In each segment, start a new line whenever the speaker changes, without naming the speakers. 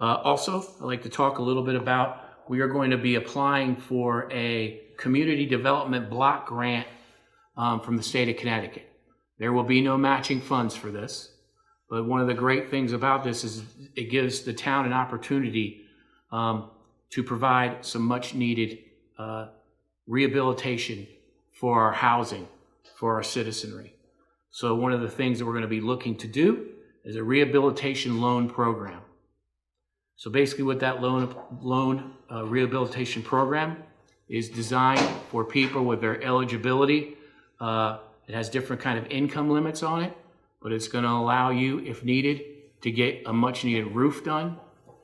Uh, also, I'd like to talk a little bit about, we are going to be applying for a community development block grant um, from the state of Connecticut. There will be no matching funds for this, but one of the great things about this is it gives the town an opportunity um, to provide some much-needed uh, rehabilitation for our housing, for our citizenry. So one of the things that we're going to be looking to do is a rehabilitation loan program. So basically what that loan, loan uh, rehabilitation program is designed for people with their eligibility. Uh, It has different kind of income limits on it, but it's going to allow you, if needed, to get a much needed roof done,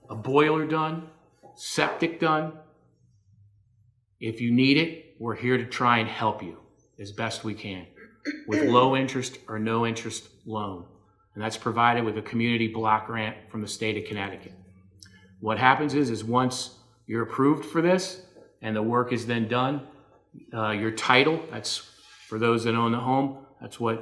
a boiler done, septic done. If you need it, we're here to try and help you as best we can with low interest or no interest loan. And that's provided with a community block grant from the state of Connecticut. What happens is, is once you're approved for this and the work is then done, uh, your title, that's for those that own the home, that's what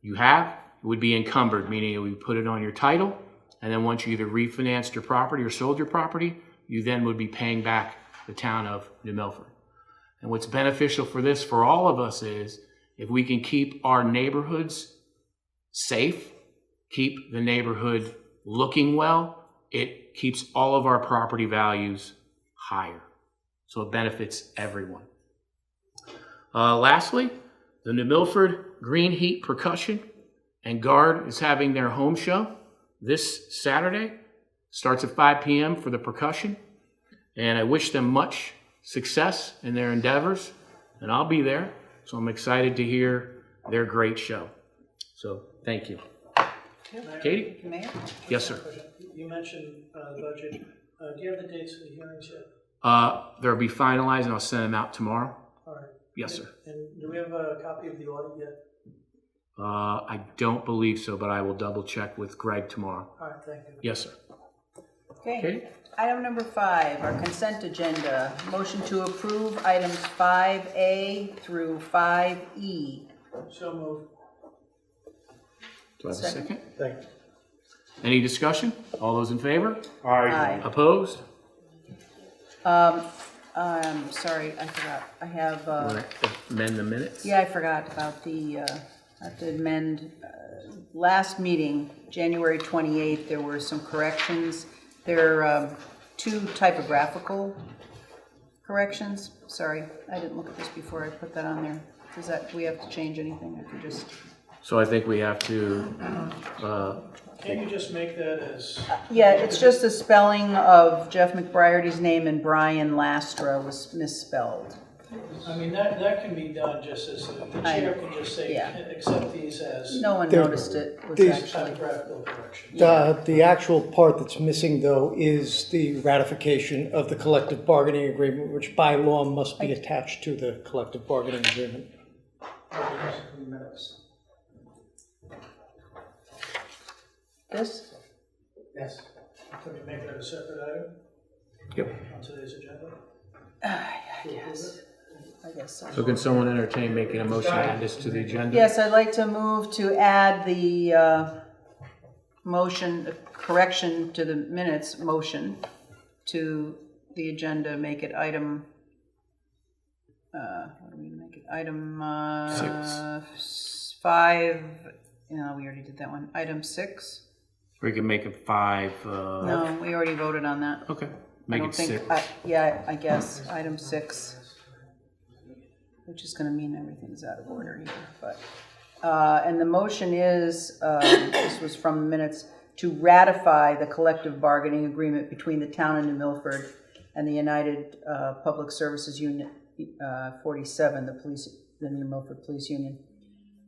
you have, would be encumbered, meaning we put it on your title. And then once you either refinanced your property or sold your property, you then would be paying back the town of New Milford. And what's beneficial for this for all of us is if we can keep our neighborhoods safe, keep the neighborhood looking well, it keeps all of our property values higher. So it benefits everyone. Uh, lastly, the New Milford Green Heat Percussion and Guard is having their home show this Saturday. Starts at 5 p.m. for the percussion. And I wish them much success in their endeavors. And I'll be there. So I'm excited to hear their great show. So thank you. Katie?
Mayor?
Yes, sir.
You mentioned uh, budget. Uh, Do you have the dates for the hearings yet?
Uh, they'll be finalized and I'll send them out tomorrow.
All right.
Yes, sir.
And do we have a copy of the audit yet?
Uh, I don't believe so, but I will double check with Greg tomorrow.
All right, thank you.
Yes, sir.
Okay.
Katie?
Item number five, our consent agenda. Motion to approve items 5A through E. 5E.
So moved.
Do I have a
Second.
second?
Thank you.
Any discussion? All those in favor?
Aye.
Opposed?
Um, sorry, I forgot. I have, uh,
Wanna Amend the minutes?
yeah, I forgot about the, uh, I have to amend, uh, last meeting, January 28th, there were some corrections. There are um, two typographical corrections. Sorry, I didn't look at this before I put that on there. Does that, do we have to change anything? I could just.
So I think we have to, uh,
Can you just make that as,
Yeah, it's just the spelling of Jeff McBriarty's name and Brian Lastra was misspelled.
I mean, that, that can be done just as, the chair can just say,
Yeah.
accept these as
No one
There-
noticed it was
these-
actually,
typographical corrections.
The, the actual part that's missing, though, is the ratification of the collective bargaining agreement, which by law must be attached to the collective bargaining agreement.
Minutes.
this,
Yes. Can we make that a separate item
yep.
on today's agenda?
yes, I guess
So
so.
can someone entertain making a motion to add this to the agenda?
Yes, I'd like to move to add the, uh, motion, correction to the minutes, motion to the agenda, make it item, uh, what do we make it, item, uh, s- five, no, we already did that one, item six.
We can make it five, uh,
No, we already voted on that.
okay,
I
make
don't
it
think.
six.
I- Yeah, I guess, item six, which is gonna mean everything's out of order here, but, uh, and the motion is, um, this was from the minutes, to ratify the collective bargaining agreement between the town and New Milford and the United uh, Public Services Unit uh, 47, the police, the New Milford Police Union,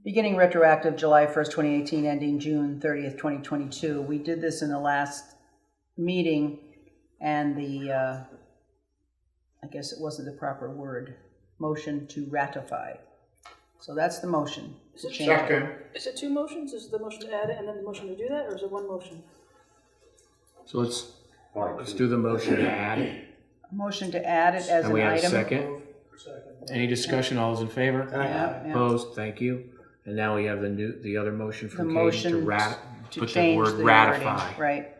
beginning retroactive July 1st, 2018, ending June 30th, 2022. We did this in the last meeting, and the, uh, I guess it wasn't the proper word, motion to ratify. So that's the motion. to change it.
Is it two motions? Is the motion to add it and then the motion to do that, or is it one motion?
So let's, let's do the motion to add it.
Motion to add it as
And
an
we
item.
have a second? Any discussion? All those in favor?
Yeah, yeah.
Opposed? Thank you. And now we have the new, the other motion
The
from Katie
motion
to rat,
to
put the
change the
word
wording,
ratify
right,